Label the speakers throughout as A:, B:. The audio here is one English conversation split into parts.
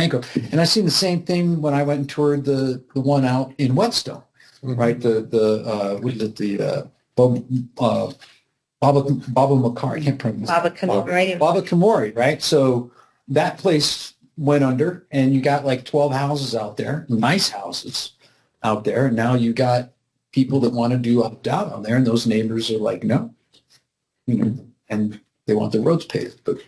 A: bankrupt. And I seen the same thing when I went and toured the, the one out in Whetstone, right? The, the, uh, what is it, the, uh, Bob, uh, Baba, Baba Makar, I can't pronounce.
B: Baba commemorative.
A: Baba Kamori, right? So that place went under and you got like 12 houses out there, nice houses out there. And now you got people that want to do opt out on there and those neighbors are like, no. You know, and they want their roads paved, but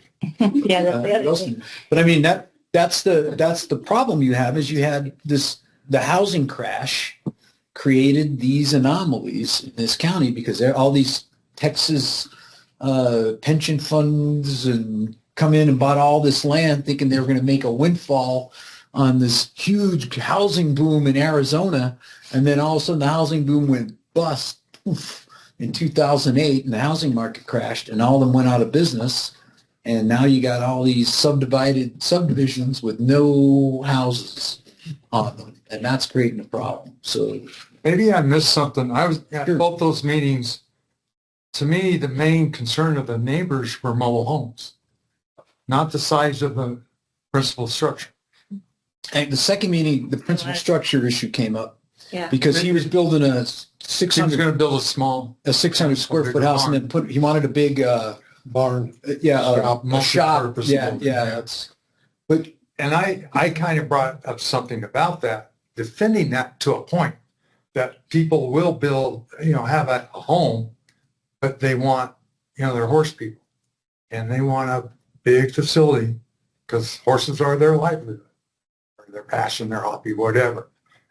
B: Yeah,
A: uh,
B: that's the other
A: those-
B: thing.
A: But I mean, that, that's the, that's the problem you have is you had this, the housing crash created these anomalies in this county because there, all these Texas uh, pension funds and come in and bought all this land thinking they were going to make a windfall on this huge housing boom in Arizona. And then all of a sudden the housing boom went bust poof, in 2008 and the housing market crashed and all of them went out of business and now you got all these subdivided subdivisions with no houses on them, and that's creating a problem. So
C: Maybe I missed something. I was at
A: Sure.
C: both those meetings. To me, the main concern of the neighbors were mobile homes, not the size of the principal structure.
A: and the second meeting, the principal
B: Right.
A: structure issue came up
B: Yeah.
A: because he was building a six
C: He was
A: hundred
C: going to build a small,
A: a six hundred square foot house, and then put he wanted a big uh,
C: Barn.
A: yeah uh, a,
C: Shop,
A: a shop
C: multipurpose
A: yeah
C: building,
A: yeah
C: yeah.
A: that's but
C: And I, I kind of brought up something about that, defending that to a point that people will build, you know, have a a home, but they want, you know, they're horse people and they want a big facility because horses are their livelihood or their passion, their hobby, whatever.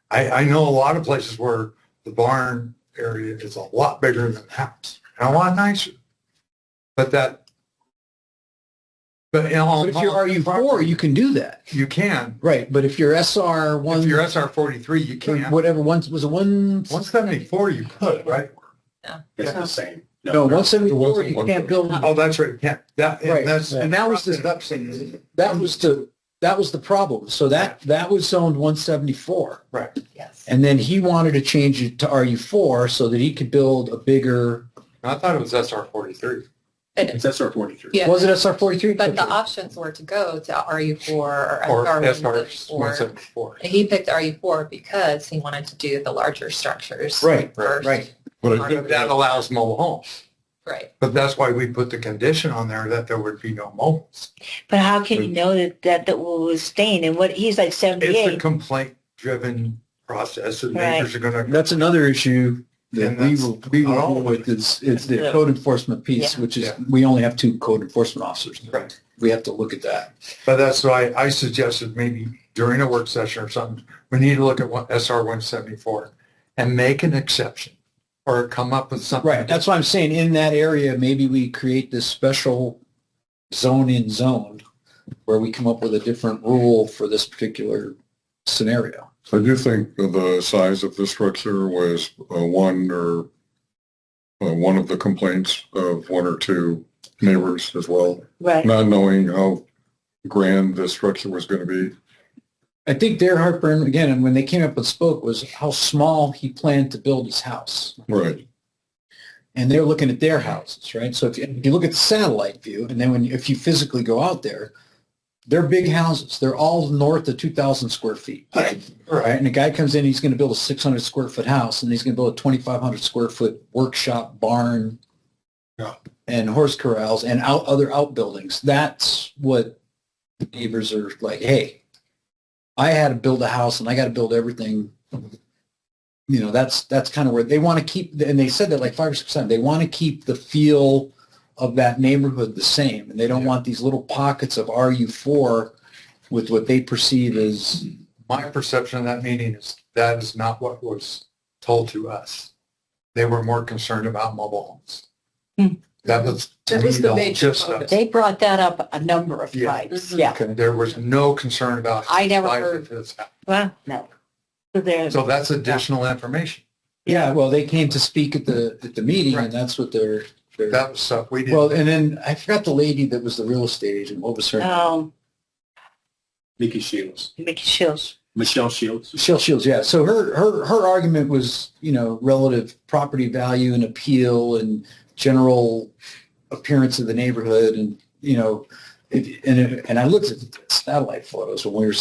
C: I, I know a lot of places where the barn area is a lot bigger than the house and a lot nicer. But that, but in all.
A: but if you're RU four, you can do that
C: You can,
A: right. But if you're SR
C: If you're
A: one
C: SR forty-three, you can't.
A: whatever one was it one
C: One seventy-four, you could, right?
D: It's the same.
A: no one seventy four
C: wasn't
A: you
C: one-
A: can't build
C: Oh, that's right, you can't. That,
A: Right.
C: and that's.
A: And that was the-
C: the.
A: that was the that was the problem. So that that was zoned 174,
C: Right.
B: Yes.
A: and then he wanted to change it to RU4 so that he could build a bigger.
C: I thought it was SR forty-three.
D: It's SR forty-three.
E: Yeah.
A: Was it SR43?
E: But the options were to go to RU4 or
C: Or SR one
E: SR134.
C: seventy-four.
E: He picked RU4 because he wanted to do the larger structures.
A: right,
E: first.
A: right.
C: That allows mobile homes,
E: Right.
C: but that's why we put the condition on there that there would be no mobiles.
B: But how can you know that that, that will sustain? And what, he's like
C: It's a
B: 78.
C: complaint-driven process and
B: Right.
C: neighbors are gonna.
A: That's another issue that
C: And
A: we
C: that's
A: will we will
C: not all
A: deal
C: of it.
A: with is is the
B: Yeah.
A: code enforcement piece, which is
C: Yeah.
A: we only have two code enforcement officers.
C: Right.
A: We have to look at that.
C: But that's why I suggested maybe during a work session or something, we need to look at what SR one seventy-four and make an exception or come up with something.
A: Right. That's why I'm saying in that area, maybe we create this special zone in zone where we come up with a different rule for this particular scenario.
F: I do think the size of the structure was uh, one or uh, one of the complaints uh, of one or two neighbors as well,
B: Right.
F: not knowing how grand this structure was going to be.
A: I think their heartburn again, and when they came up with spoke was how small he planned to build his house,
F: Right.
A: and they're looking at their houses, right? So if you, if you look at the satellite view, and then when if you physically go out there, they're big houses. They're all north of two thousand square feet, right?
C: Right.
A: And the guy comes in, he's going to build a six hundred square foot house, and he's going to build a twenty five hundred square foot workshop barn,
C: Yeah.
A: and horse corrals and out other outbuildings. That's what the neighbors are like. Hey, I had to build a house and I got to build everything. You know, that's that's kind of where they want to keep, and they said that like five or six times. They want to keep the feel of that neighborhood the same, and they don't want these little pockets of RU four with what they perceive as
C: My perception of that meeting is that is not what was told to us. They were more concerned about mobile homes.
B: Hmm.
C: That was. to
E: That was
C: me,
E: the major
C: gist
E: focus.
C: of it.
B: They brought that up a number of
C: Yeah.
B: times.
E: Mhm.
B: Yeah.
C: There was no concern about.
B: I never
C: size of
B: heard.
C: his house.
B: Well, no. So there's,
C: So that's additional information.
A: yeah. Well, they came to speak at the at the meeting,
C: Right.
A: and that's what they're. they're
C: That was stuff we
A: well,
C: didn't.
A: and then I forgot the lady that was the real estate agent. What
C: Oh.
A: was her?
B: um,
D: Mickey Shields.
B: Mickey Shields.
D: Michelle Shields.
A: Shell Shields, yeah. So her, her, her argument was, you know, relative property value and appeal and general appearance of the neighborhood. And, you know, it, and, and I looked at the satellite photos when we were